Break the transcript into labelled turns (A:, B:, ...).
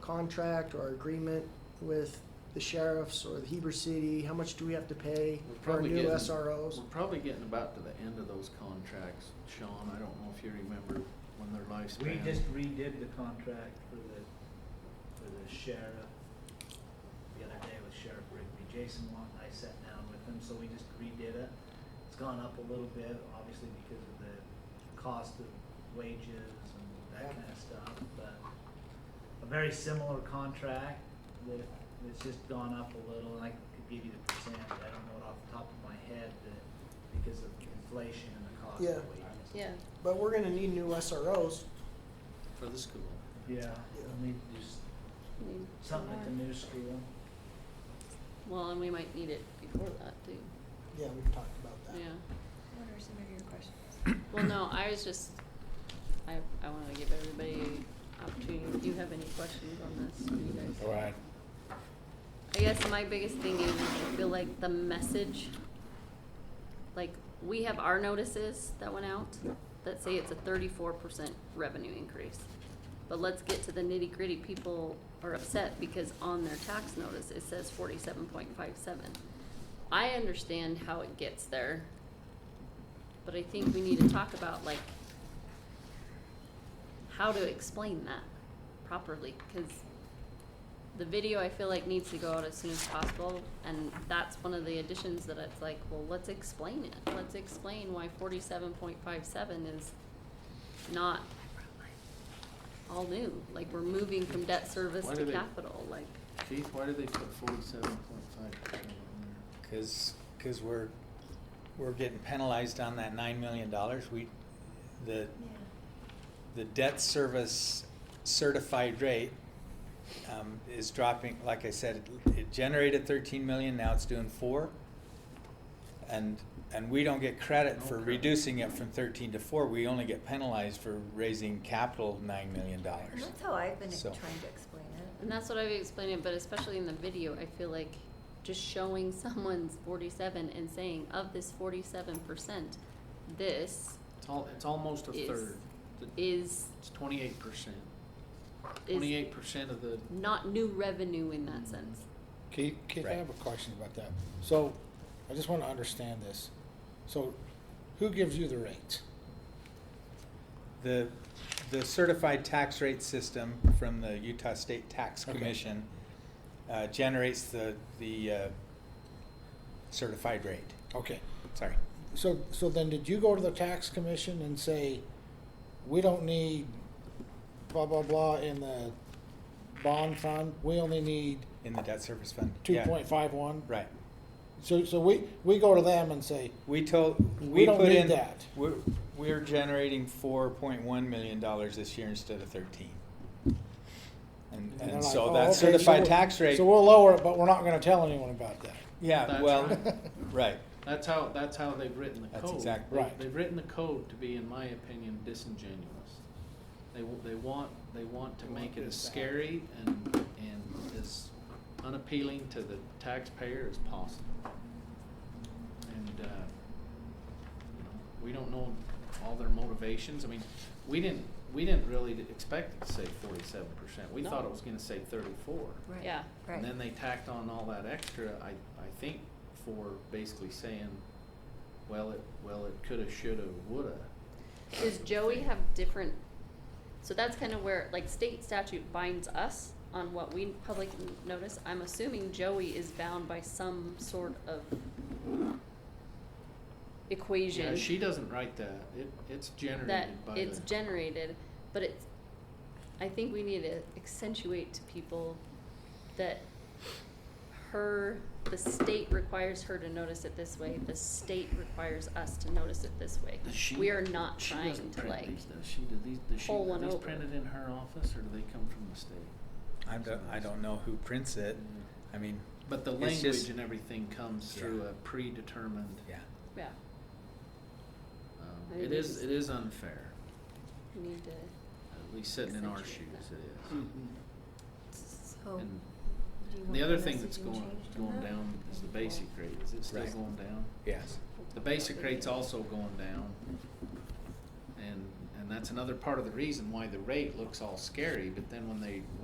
A: contract or agreement with the sheriffs or the Heber City? How much do we have to pay
B: We're
A: for our
B: probably
A: new
B: getting-
A: SROs?
B: We're probably getting about to the end of those contracts, Sean, I don't know if you remember when their
C: We
B: lifespan.
C: just redid the contract for the, for the sheriff the other day with Sheriff Rigby. Jason Long, I sat down with him, so we just redid it. It's gone up a little bit, obviously because of the cost of wages and that kind of stuff, but a very similar contract that, that's just gone up a little, and I could give you the percentage, I don't know it off the top of my head, but because of inflation and the cost
A: Yeah.
C: of wages.
D: Yeah,
A: But we're gonna need new SROs.
B: For the school.
C: Yeah, I mean, just
D: we need some
C: Something at the
D: more.
C: new school.
D: Well, and we might need it before that too,
A: Yeah, we've talked about that.
D: yeah.
E: What are some of your questions?
D: Well, no, I was just, I, I wanna give everybody opportunity, if you have any questions on this, you guys.
F: Right.
D: I guess my biggest thing is I feel like the message, like we have our notices that went out that say it's a thirty-four percent revenue increase. But let's get to the nitty gritty. People are upset because on their tax notice it says forty-seven point five seven. I understand how it gets there, but I think we need to talk about like how to explain that properly, cause the video I feel like needs to go out as soon as possible, and that's one of the additions that it's like, well, let's explain it. Let's explain why forty-seven point five seven is not all new. Like we're moving from debt service
B: Why
D: to
B: do they-
D: capital. Like
B: Keith, why did they put forty-seven point five percent on
F: Cause, cause we're, we're getting penalized on that nine million dollars. We, the, the debt service certified rate um, is dropping, like I said, it- it generated thirteen million, now it's doing four. And, and we don't get credit for
B: Okay.
F: reducing it from thirteen to four, we only get penalized for raising capital nine million dollars.
E: That's how I've been ex-
F: So-
E: trying to explain it.
D: and that's what I've explained it, but especially in the video, I feel like just showing someone's forty-seven and saying, of this forty-seven percent, this
B: there? It's al- it's almost a
D: Is-
B: third. The-
D: is
B: It's twenty-eight percent.
D: is
B: Twenty-eight percent of the,
D: not new revenue in that sense.
G: Keith, Keith, I
F: Right.
G: have a question about that. So, I just wanna understand this. So, who gives you the rate?
F: The, the certified tax rate system from the Utah State Tax
G: Okay.
F: Commission uh, generates the, the uh, certified rate,
G: Okay,
F: sorry.
G: so, so then did you go to the tax commission and say, we don't need blah, blah, blah in the bond fund, we only need
F: In the debt service fund.
G: two
F: yeah,
G: point five one?
F: Right.
G: So, so we, we go to them and say,
F: We told,
G: We
F: we
G: don't
F: put
G: need
F: in.
G: that.
F: We're, we're generating four point one million dollars this year instead of thirteen. And,
G: and they're
F: and
G: like,
F: so
G: "Oh,
F: that
G: okay, so
F: certified
G: we'll-
F: tax rate,
G: So we'll lower it, but we're not gonna tell anyone about
F: yeah,
B: That's
F: well,
B: right.
F: right,
B: that's how, that's how they've written the code.
F: That's exact-
B: They-
G: right.
B: They've written the code to be, in my opinion, disingenuous. They, w- they want, they want to
G: They want
B: make it
G: it
B: as
G: bad.
B: scary and, and as unappealing to the taxpayer as possible. And, uh, you know, we don't know all their motivations. I mean, we didn't, we didn't really expect it to say forty-seven percent. We
D: No.
B: thought it was gonna say thirty-four.
E: Right.
D: Yeah.
E: Right.
B: And then they tacked on all that extra, I, I think, for basically saying, well, it, well, it coulda, shoulda, woulda.
D: Does Joey have different? So that's kind of where like state statute binds us on what we public n- notice. I'm assuming Joey is bound by some sort of equation
B: Yeah, she doesn't write that, it, it's
D: that
B: generated by the.
D: it's generated, but it's. I think we need to accentuate to people that her the state requires her to notice it this way. The state requires us to notice it this way.
B: Does she-
D: we are not
B: she
D: trying
B: doesn't
D: to
B: print
D: like.
B: these, Does she, do these, does she,
D: pull
B: are
D: one
B: these
D: over.
B: printed in her office, or do they come from the state?
F: I don't, I don't know who prints it,
B: Mm.
F: I mean,
B: But the
F: It's just-
B: language and everything comes
F: Yeah.
B: through a predetermined,
F: yeah.
D: Yeah. I
B: um,
D: think
B: it
D: we
B: is,
D: just-
B: it is unfair,
D: We need to.
B: at least sitting in our shoes,
D: Accentuate that.
B: it is.
F: Mm-hmm.
C: Mhm.
E: So, do
B: And
E: you want
B: The other
E: the
B: thing that's
E: messaging
B: going,
E: changed on
B: going
E: that?
B: down is the basic rate, is it still
F: Right.
B: going down?
F: Yes.
B: The basic rate's also going down. And, and that's another part of the reason why the rate looks all scary, but then when they,